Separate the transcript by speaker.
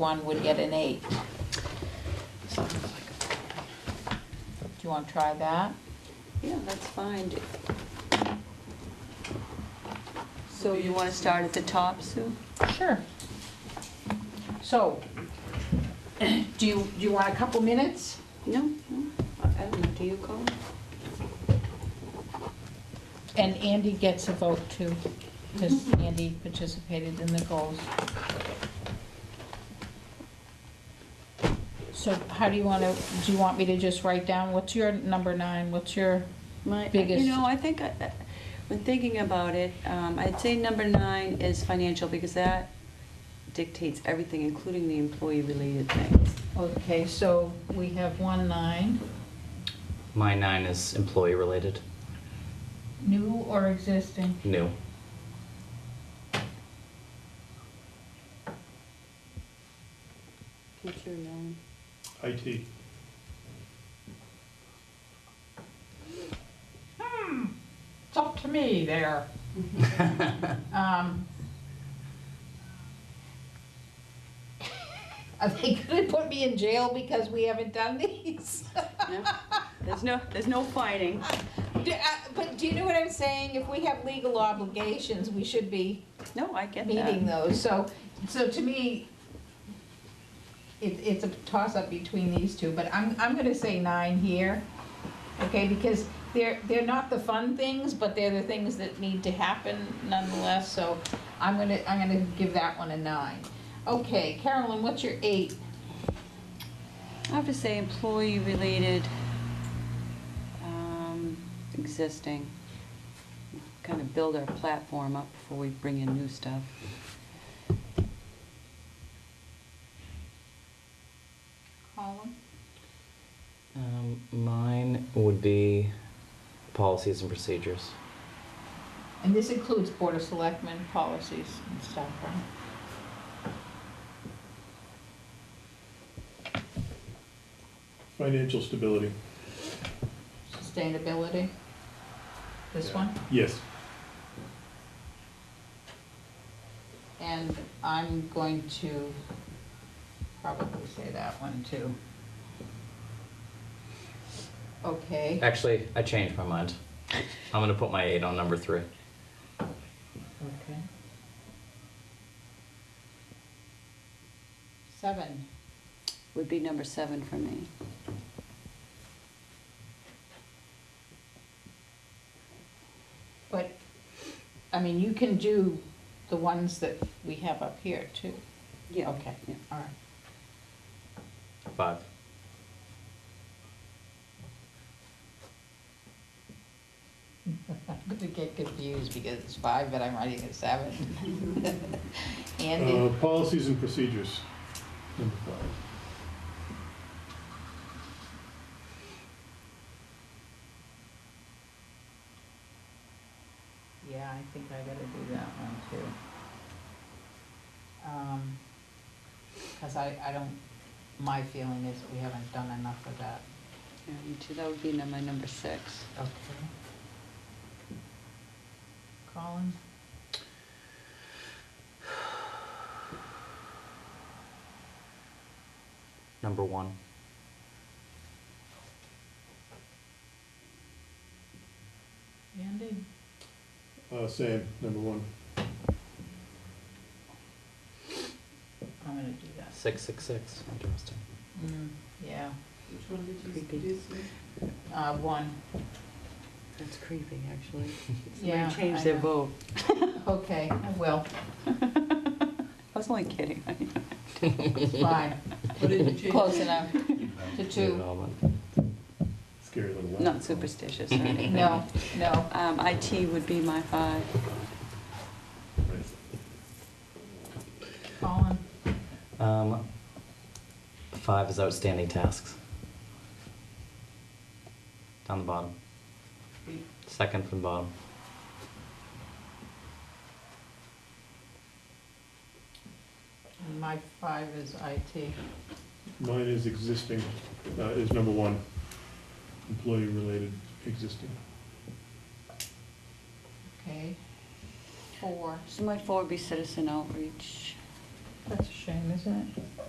Speaker 1: one would get an eight. Do you want to try that?
Speaker 2: Yeah, that's fine. So you want to start at the top, Sue?
Speaker 1: Sure. So, do you, do you want a couple minutes?
Speaker 2: No, no, I I don't know, do you, Colin?
Speaker 1: And Andy gets a vote too, because Andy participated in the goals. So how do you want to, do you want me to just write down, what's your number nine, what's your,
Speaker 2: My, uh,
Speaker 1: Biggest-
Speaker 2: you know, I think, I- I- when thinking about it, um, I'd say number nine is financial, because that dictates everything, including the employee-related things.
Speaker 1: okay, so we have one nine,
Speaker 3: My nine is employee related.
Speaker 1: new or existing?
Speaker 3: New.
Speaker 2: What's your nine?
Speaker 4: IT.
Speaker 1: It's up to me there. Um, Are they gonna put me in jail because we haven't done these?
Speaker 2: There's no, there's no fighting.
Speaker 1: Do- uh, But do you know what I'm saying? If we have legal obligations, we should be
Speaker 2: No, I get
Speaker 1: meeting
Speaker 2: that.
Speaker 1: those, so, so to me, it, it's a toss-up between these two, but I'm, I'm gonna say nine here, okay, because they're, they're not the fun things, but they're the things that need to happen nonetheless, so I'm gonna, I'm gonna give that one a nine. Okay, Carolyn, what's your eight?
Speaker 2: I have to say employee-related, um, existing. Kind of build our platform up before we bring in new stuff.
Speaker 1: Colin?
Speaker 3: Um, mine would be policies and procedures.
Speaker 1: And this includes Board of Selectmen policies and stuff, right?
Speaker 4: Financial stability.
Speaker 1: Sustainability? This
Speaker 4: Yeah.
Speaker 1: one?
Speaker 4: Yes.
Speaker 1: And I'm going to probably say that one too. Okay,
Speaker 3: Actually, I changed my mind. I'm gonna put my eight on number three.
Speaker 1: okay. Seven,
Speaker 2: would be number seven for me.
Speaker 1: but, I mean, you can do the ones that we have up here too.
Speaker 2: Yeah.
Speaker 1: Okay,
Speaker 2: Yeah.
Speaker 1: all right.
Speaker 3: Five.
Speaker 1: I'm gonna get confused because it's five, but I'm writing a seven. Andy,
Speaker 4: Uh, Policies and procedures, number five.
Speaker 1: yeah, I think I gotta do that one too. Um, cause I, I don't, my feeling is that we haven't done enough of that.
Speaker 2: Yeah, me too. That would be num- my number six.
Speaker 1: Okay. Colin?
Speaker 3: Number one.
Speaker 1: Andy?
Speaker 4: Uh, Same, number one.
Speaker 1: I'm gonna do that.
Speaker 3: Six, six, six. Interesting.
Speaker 2: Mm-hmm.
Speaker 1: Mm, yeah,
Speaker 5: Which one did
Speaker 2: Creepy.
Speaker 5: you do? Sue?
Speaker 1: uh, one,
Speaker 2: That's creepy, actually.
Speaker 1: Yeah,
Speaker 2: Somebody change
Speaker 1: I
Speaker 2: their
Speaker 1: know.
Speaker 2: vote.
Speaker 1: okay, I will,
Speaker 2: I was only kidding.
Speaker 1: it's fine,
Speaker 5: What did you change?
Speaker 1: close enough to
Speaker 3: New
Speaker 1: two.
Speaker 3: development.
Speaker 4: Scary little one.
Speaker 2: Not superstitious or anything.
Speaker 1: No, no,
Speaker 2: Um, IT would be my five.
Speaker 4: Right.
Speaker 1: Colin?
Speaker 3: Um, five is outstanding tasks. Down the bottom. Second from bottom.
Speaker 1: And My five is IT.
Speaker 4: Mine is existing, uh, is number one. Employee-related existing.
Speaker 1: Okay. Four.
Speaker 2: So my four would be citizen outreach.
Speaker 1: That's a shame, isn't it?